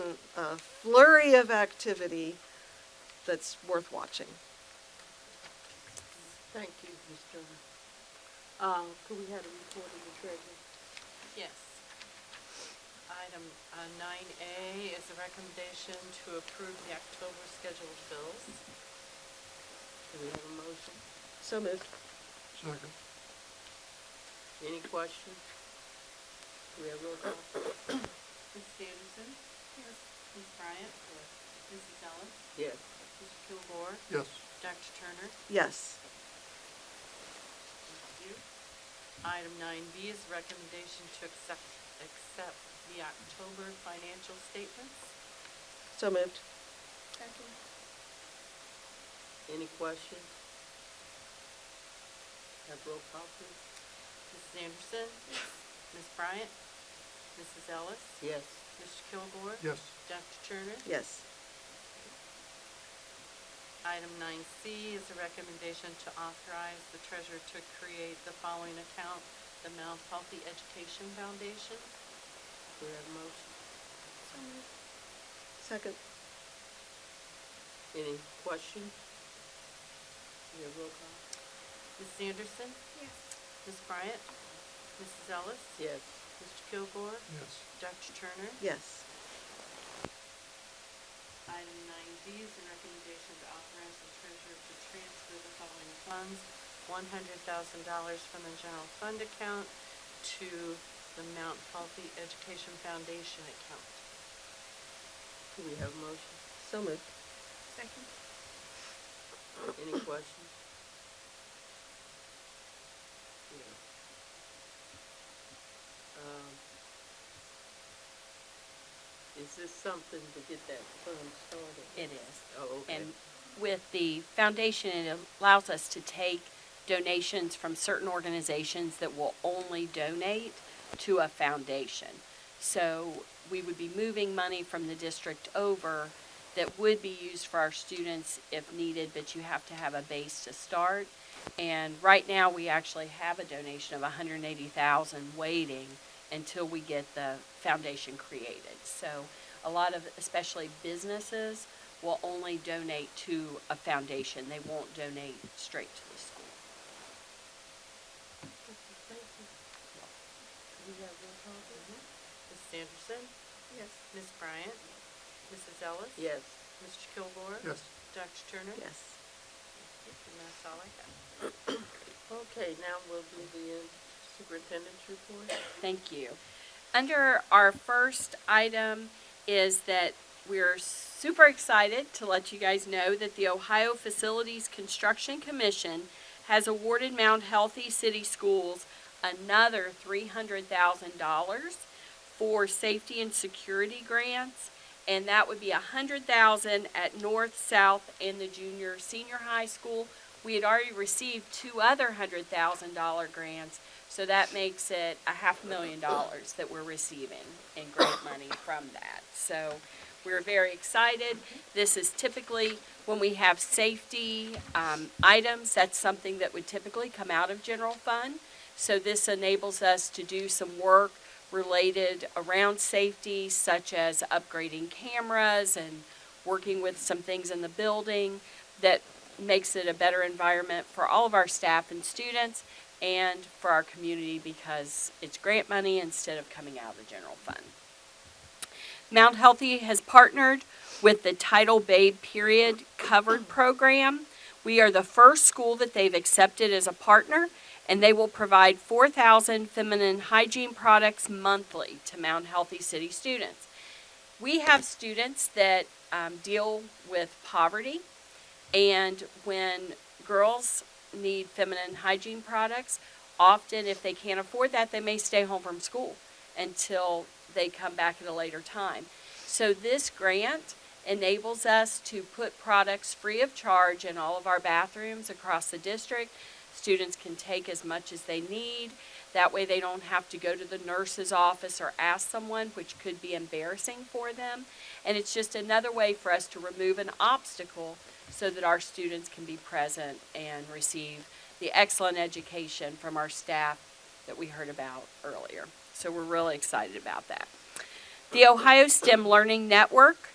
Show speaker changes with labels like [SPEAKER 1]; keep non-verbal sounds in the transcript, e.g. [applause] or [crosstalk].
[SPEAKER 1] a flurry of activity that's worth watching.
[SPEAKER 2] Thank you, Ms. Turner. Uh, could we have a report of the treasurer?
[SPEAKER 3] Yes. Item uh, nine A is a recommendation to approve the October scheduled bills.
[SPEAKER 2] Do we have a motion?
[SPEAKER 1] So moved.
[SPEAKER 4] Second.
[SPEAKER 2] Any questions? Do we have roll
[SPEAKER 3] [coughs]
[SPEAKER 2] call?
[SPEAKER 3] Ms. Anderson? Yes. Ms. Bryant? Yes. Mrs. Ellis?
[SPEAKER 2] Yes.
[SPEAKER 3] Mr. Kilgore?
[SPEAKER 4] Yes.
[SPEAKER 3] Dr. Turner?
[SPEAKER 1] Yes.
[SPEAKER 3] Thank you. Item nine B is recommendation to accept, accept the October financial statements.
[SPEAKER 1] So moved.
[SPEAKER 2] Any questions? Have roll call, please?
[SPEAKER 3] Mrs. Anderson? Yes. Ms. Bryant? Mrs. Ellis?
[SPEAKER 2] Yes.
[SPEAKER 3] Mr. Kilgore?
[SPEAKER 4] Yes.
[SPEAKER 3] Dr. Turner?
[SPEAKER 1] Yes.
[SPEAKER 3] Item nine C is a recommendation to authorize the treasurer to create the following account, the Mount Healthy Education Foundation.
[SPEAKER 2] Do we have a motion?
[SPEAKER 1] Second.
[SPEAKER 2] Any questions? Do we have roll call?
[SPEAKER 3] Mrs. Anderson? Yes. Ms. Bryant? Mrs. Ellis?
[SPEAKER 2] Yes.
[SPEAKER 3] Mr. Kilgore?
[SPEAKER 4] Yes.
[SPEAKER 3] Dr. Turner?
[SPEAKER 1] Yes.
[SPEAKER 3] Item nine D is a recommendation to authorize the treasurer to transfer the following funds. One hundred thousand dollars from the general fund account to the Mount Healthy Education Foundation account.
[SPEAKER 2] Do we have a motion?
[SPEAKER 1] So moved.
[SPEAKER 2] Any questions? Yeah. Um, Is this something to get that fund started?
[SPEAKER 5] It is.
[SPEAKER 2] Oh, okay.
[SPEAKER 5] And with the foundation, it allows us to take donations from certain organizations that will only donate to a foundation. So we would be moving money from the district over that would be used for our students if needed, but you have to have a base to start. And right now, we actually have a donation of 180,000 waiting until we get the foundation created. So a lot of, especially businesses, will only donate to a foundation. They won't donate straight to the school.
[SPEAKER 2] Thank you. Do we have roll call?
[SPEAKER 3] Mrs. Anderson?
[SPEAKER 1] Yes.
[SPEAKER 3] Ms. Bryant? Mrs. Ellis?
[SPEAKER 2] Yes.
[SPEAKER 3] Mr. Kilgore?
[SPEAKER 4] Yes.
[SPEAKER 3] Dr. Turner?
[SPEAKER 1] Yes.
[SPEAKER 3] And that's all I got.
[SPEAKER 2] Okay, now we'll do the uh, superintendent's report.
[SPEAKER 5] Thank you. Under our first item is that we're super excited to let you guys know that the Ohio Facilities Construction Commission has awarded Mount Healthy City Schools another three hundred thousand dollars for safety and security grants. And that would be a hundred thousand at North, South, and the junior, senior high school. We had already received two other hundred thousand dollar grants, so that makes it a half million dollars that we're receiving in grant money from that. So we're very excited. This is typically, when we have safety um, items, that's something that would typically come out of general fund. So this enables us to do some work related around safety, such as upgrading cameras and working with some things in the building that makes it a better environment for all of our staff and students and for our community because it's grant money instead of coming out of the general fund. Mount Healthy has partnered with the Title Babe Period Covered Program. We are the first school that they've accepted as a partner, and they will provide 4,000 feminine hygiene products monthly to Mount Healthy City students. We have students that um, deal with poverty, and when girls need feminine hygiene products, often if they can't afford that, they may stay home from school until they come back at a later time. So this grant enables us to put products free of charge in all of our bathrooms across the district. Students can take as much as they need. That way they don't have to go to the nurse's office or ask someone, which could be embarrassing for them. And it's just another way for us to remove an obstacle so that our students can be present and receive the excellent education from our staff that we heard about earlier. So we're really excited about that. The Ohio STEM Learning Network